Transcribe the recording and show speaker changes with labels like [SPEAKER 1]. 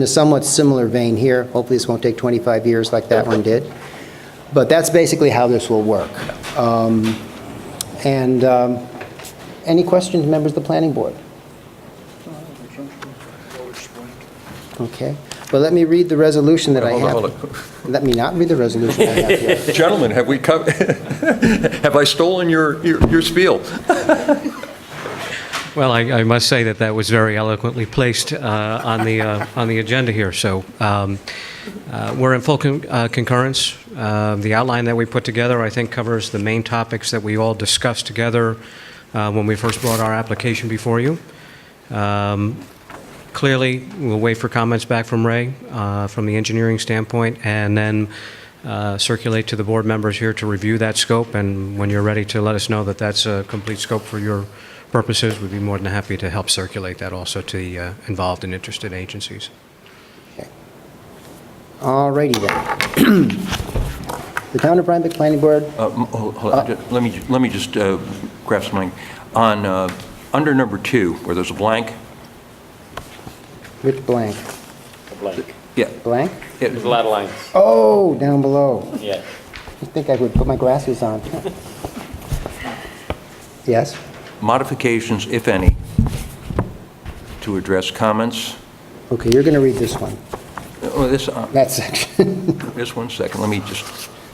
[SPEAKER 1] in a somewhat similar vein here. Hopefully, this won't take 25 years like that one did. But that's basically how this will work. Um, And um, any questions, members of the planning board? Okay. Well, let me read the resolution that I
[SPEAKER 2] Hold on,
[SPEAKER 1] have.
[SPEAKER 2] hold
[SPEAKER 1] Let me not read the resolution I have here.
[SPEAKER 2] Gentlemen, have we come, have I stolen your, your your spiel?
[SPEAKER 3] Well, I, I must say that that was very eloquently placed uh, on the uh, on the agenda here. So um, uh, we're in full con- uh, concurrence. Uh, the outline that we put together, I think, covers the main topics that we all discussed together uh, when we first brought our application before you. Um, clearly, we'll wait for comments back from Ray uh, from the engineering standpoint, and then. Uh, circulate to the board members here to review that scope, and when you're ready to let us know that that's a complete scope for your purposes, we'd be more than happy to help circulate that also to the uh, involved and interested agencies.
[SPEAKER 1] All righty then. The Town of Rhinebeck Planning Board,
[SPEAKER 2] Uh, m- Hold hold on, ju- let me, ju- let me just uh, grab something. On, uh, under number two, where there's a blank,
[SPEAKER 1] Rich Blank.
[SPEAKER 4] blank.
[SPEAKER 2] yeah,
[SPEAKER 1] Blank?
[SPEAKER 2] it-
[SPEAKER 4] There's a lot of lines,
[SPEAKER 1] Oh, down below.
[SPEAKER 4] yeah.
[SPEAKER 1] I think I would put my glasses on. Yes?
[SPEAKER 2] modifications, if any, to address comments.
[SPEAKER 1] Okay, you're going to read this one,
[SPEAKER 2] Oh, this, uh,
[SPEAKER 1] that section.
[SPEAKER 2] Just one second, let me just